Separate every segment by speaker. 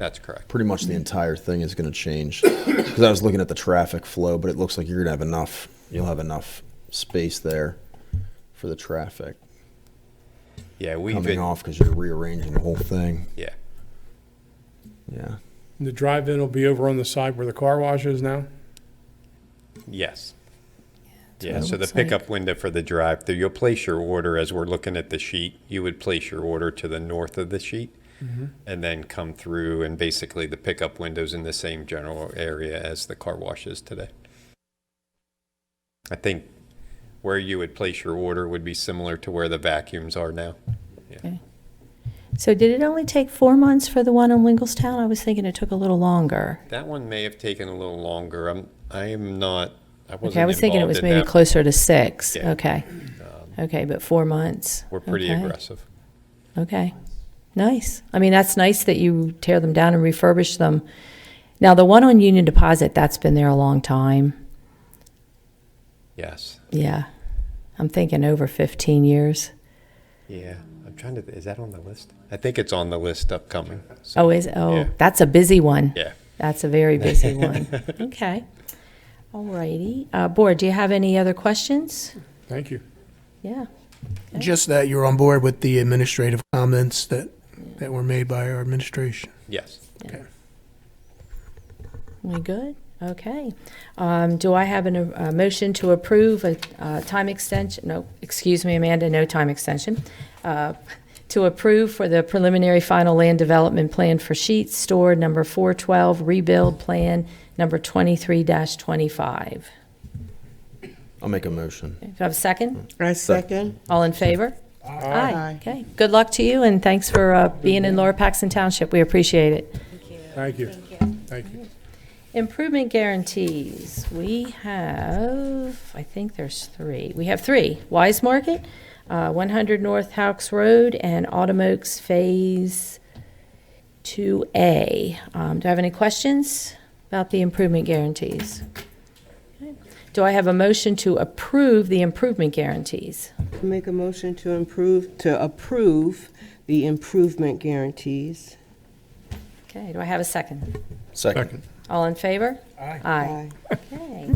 Speaker 1: That's correct.
Speaker 2: pretty much the entire thing is going to change. Because I was looking at the traffic flow, but it looks like you're going to have enough. You'll have enough space there for the traffic
Speaker 1: Yeah, we've
Speaker 2: coming
Speaker 1: been,
Speaker 2: off because you're rearranging the whole thing.
Speaker 1: yeah,
Speaker 2: Yeah.
Speaker 3: And The drive-in will be over on the side where the car wash is now?
Speaker 1: yes.
Speaker 4: that's
Speaker 1: Yeah,
Speaker 4: what it
Speaker 1: so the
Speaker 4: looks like.
Speaker 1: pickup window for the drive-through, you'll place your order as we're looking at the sheet. You would place your order to the north of the sheet and then come through and basically the pickup window's in the same general area as the car wash is today. I think where you would place your order would be similar to where the vacuums are now.
Speaker 4: So did it only take four months for the one in Lingelstown? I was thinking it took a little longer.
Speaker 1: That one may have taken a little longer. I'm, I am not, I wasn't
Speaker 4: Okay, I was thinking it
Speaker 1: involved
Speaker 4: was
Speaker 1: in
Speaker 4: maybe
Speaker 1: that.
Speaker 4: closer to six.
Speaker 1: Yeah.
Speaker 4: Okay. Okay, but four months.
Speaker 1: We're pretty
Speaker 4: Okay.
Speaker 1: aggressive.
Speaker 4: Okay, nice. I mean, that's nice that you tear them down and refurbish them. Now, the one on Union Deposit, that's been there a long time.
Speaker 1: Yes.
Speaker 4: Yeah, I'm thinking over 15 years.
Speaker 1: Yeah. I'm trying to, is that on the list? I think it's on the list upcoming. So,
Speaker 4: Oh, is, oh,
Speaker 1: Yeah.
Speaker 4: that's a busy one.
Speaker 1: Yeah.
Speaker 4: That's a very busy one. Okay. All righty. Uh, Board, do you have any other questions?
Speaker 3: Thank you.
Speaker 4: Yeah.
Speaker 5: Just that you're on board with the administrative comments that, that were made by our administration.
Speaker 1: Yes.
Speaker 4: We good? Okay. Um, Do I have an, a motion to approve a uh, time extension? No, excuse me, Amanda, no time extension. Uh, To approve for the preliminary final land development plan for Sheets Store number 412, rebuild plan number 23-25. Do
Speaker 2: I'll make a motion.
Speaker 4: you have a second?
Speaker 6: I second.
Speaker 4: All in favor? Aye. Okay. Good luck to you, and thanks for uh, being in Lower Paxton Township. We appreciate it.
Speaker 3: Thank you. Thank you.
Speaker 4: Improvement guarantees, we have, I think there's three. We have three. Wise Market, uh, 100 North Hawks Road, and Autumn Oaks Phase 2A. Um, Do I have any questions about the improvement guarantees? Okay. Do I have a motion to approve the improvement guarantees?
Speaker 6: Make a motion to improve, to approve the improvement guarantees.
Speaker 4: Okay, do I have a second?
Speaker 2: Second.
Speaker 4: All in favor?
Speaker 3: Aye.
Speaker 4: Aye. Okay.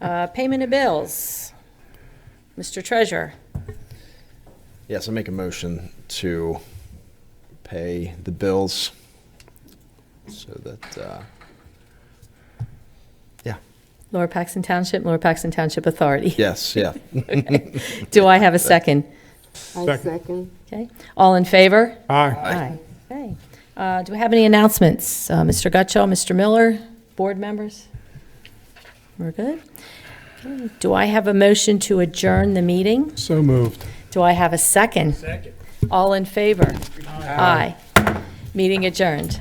Speaker 4: Uh, Payment of bills. Mr. Treasurer?
Speaker 2: Yes, I make a motion to pay the bills so that, uh, yeah,
Speaker 4: Lower Paxton Township, Lower Paxton Township Authority.
Speaker 2: yes, yeah.
Speaker 4: Do I have a second?
Speaker 6: I second.
Speaker 4: Okay, all in favor?
Speaker 3: Aye.
Speaker 4: Aye. Okay, Uh, do we have any announcements? Uh, Mr. Gutschall, Mr. Miller, board members? We're good? Okay. Do I have a motion to adjourn the meeting?
Speaker 3: So moved.
Speaker 4: Do I have a second? Second. All in favor? Aye. Meeting adjourned.